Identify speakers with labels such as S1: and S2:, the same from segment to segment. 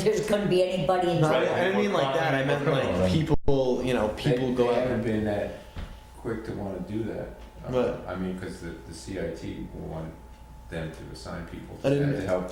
S1: there's gonna be anybody in
S2: No,
S1: trouble.
S2: I, I didn't mean like that. I meant like people. You know, people
S3: They-
S2: go
S3: They
S2: out.
S3: haven't been that quick to wanna do that. Uh,
S2: But-
S3: I mean, cause the, the CIT wanted them to assign people
S2: I
S3: to
S2: didn't-
S3: that to help,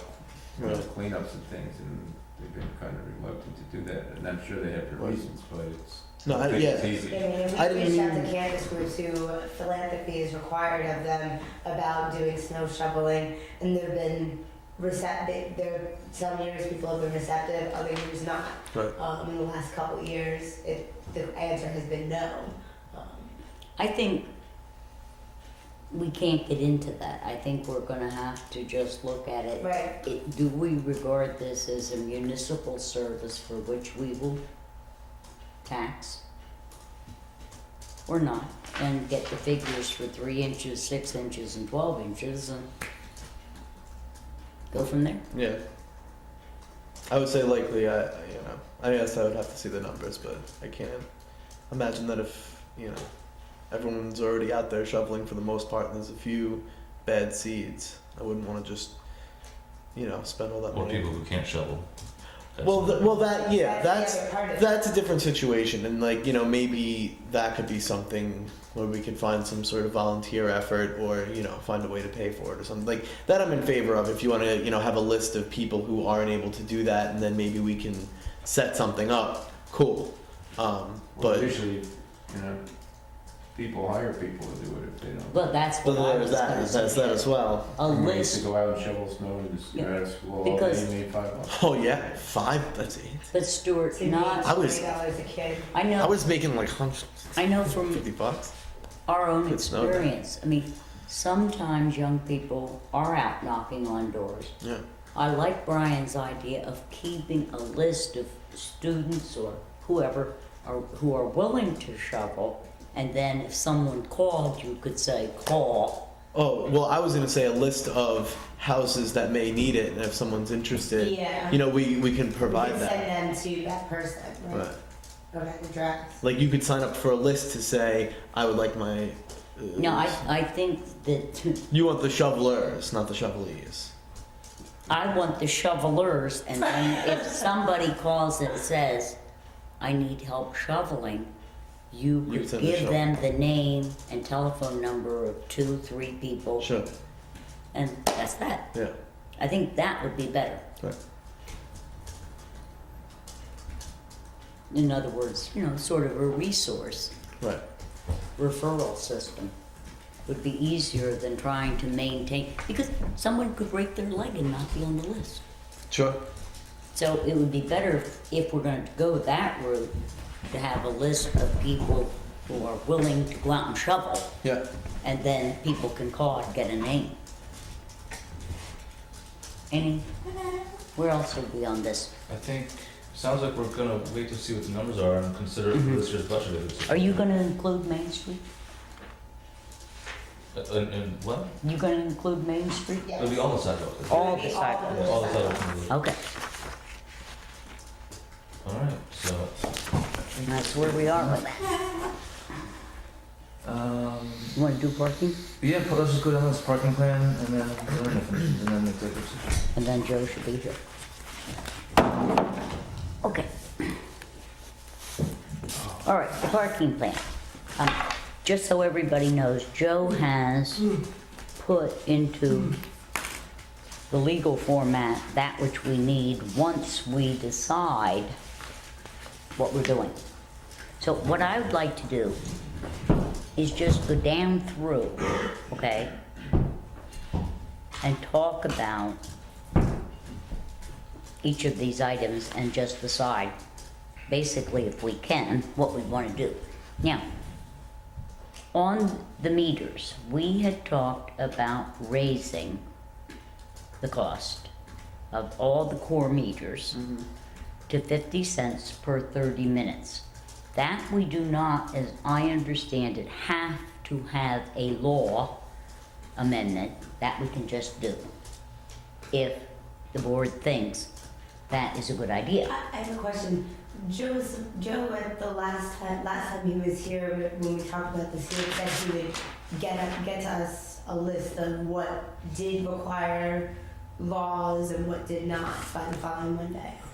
S3: you know,
S2: Right.
S3: cleanups and things, and they've been kinda reluctant to do that, and I'm sure they have their
S2: Right.
S3: reasons, but it's,
S2: No, I,
S3: it's
S2: yeah.
S3: easy.
S4: I mean,
S2: I
S4: we
S2: didn't
S4: reached out
S2: mean-
S4: to Candace Group to philanthropy is required of them about doing snow shoveling, and they've been receptive. There, some years people have been receptive, other years not.
S2: Right.
S4: Um, in the last couple of years, it, the answer has been no. Um,
S1: I think we can't get into that. I think we're gonna have to just look at it.
S4: right.
S1: It, do we regard this as a municipal service for which we will tax? Or not, and get the figures for three inches, six inches, and twelve inches, and go from there.
S2: Yeah. I would say likely. I I- you know. I guess I would have to see the numbers, but I can't imagine that if you know everyone's already out there shoveling for the most part, and there's a few bad seeds. I wouldn't want to just you know spend all that
S5: Or
S2: money.
S5: people who can't shovel. That's
S2: Well, th-
S5: another-
S2: well, that Uh, yeah, that's
S4: the other part of it.
S2: That's a different situation, and like you know, maybe that could be something where we could find some sort of volunteer effort, or you know, find a way to pay for it or something like that. I'm in favor of if you want to, you know, have a list of people who aren't able to do that, and then maybe we can set something up. Cool, um,
S3: Well,
S2: but
S3: usually, you know, people hire people to do it if they don't.
S1: Well, that's
S2: but
S1: what I
S2: there's
S1: was
S2: that,
S1: gonna
S2: there's
S1: say.
S2: that as well.
S1: A
S3: I mean, they used to
S1: list,
S3: go out and shovel snow and just
S1: Yeah.
S3: out of school all day,
S1: Because-
S3: and made five bucks.
S2: Oh yeah, five. That's eight.
S1: but Stuart, not,
S2: I was-
S4: dollars a kid.
S1: I
S2: I
S1: know,
S2: was making like hundred
S1: I know from
S2: fifty bucks.
S1: our own
S2: It's not that.
S1: experience. I mean, sometimes young people are out knocking on doors.
S2: Yeah,
S1: I like Brian's idea of keeping a list of students or whoever are, who are willing to shovel. And then if someone called, you could say, call.
S2: Oh, well, I was going to say a list of houses that may need it, and if someone's interested,
S4: Yeah.
S2: you know, we, we can
S4: We
S2: provide
S4: can
S2: that.
S4: send them to that person. Right.
S2: Right.
S4: Or that address.
S2: Like, you could sign up for a list to say, I would like my. Uh,
S1: No, I, I think that
S2: You want the shovelers, not the shovelies.
S1: I want the shovelers, and then if somebody calls and says, I need help shoveling, you
S2: You
S1: could
S2: send the
S1: give
S2: shovel.
S1: them the name and telephone number of two, three people,
S2: Sure.
S1: and that's that.
S2: Yeah.
S1: I think that would be better.
S2: Right.
S1: In other words, you know, sort of a resource
S2: Right.
S1: referral system would be easier than trying to maintain, because someone could break their leg and not be on the list.
S2: Sure.
S1: So it would be better if- if we're going to go that route, to have a list of people who are willing to go out and shovel,
S2: Yeah.
S1: and then people can call and get a name. Any, where else would be on this?
S5: I think, sounds like we're gonna wait to see what the numbers are and consider it for this year's budget. if it's-
S1: Are you going to include Main Street?
S5: Uh, And, and what?
S1: You going to include Main Street?
S4: Yes.
S5: It'll be all the sidewalks.
S1: All Oh.
S4: It'll be
S1: the
S4: of
S1: sidewalks.
S4: the
S5: All the
S4: sidewalks.
S5: sidewalks.
S1: Okay,
S5: Alright, so,
S1: and that's where we are with that.
S6: Um,
S1: You want to do parking?
S6: yeah, but let's just go down this parking plan and then, and then make the decision.
S1: And then Joe should be here. Okay. All right, the parking plan. Um, Just so everybody knows, Joe has put into the legal format that which we need once we decide what we're doing. So what I would like to do is just go down through, okay? And talk about each of these items and just decide, basically if we can, what we want to do. Now, on the meters, we had talked about raising the cost of all the core meters to 50 cents per 30 minutes. That we do not, as I understand it, have to have a law amendment, that we can just do if the board thinks that is a good idea.
S4: I I have a question. Joe was, Joe at the last time last time he was here wh- when we talked about this, he had said he would get up, get us a list of what did require laws and what did not by the following Monday.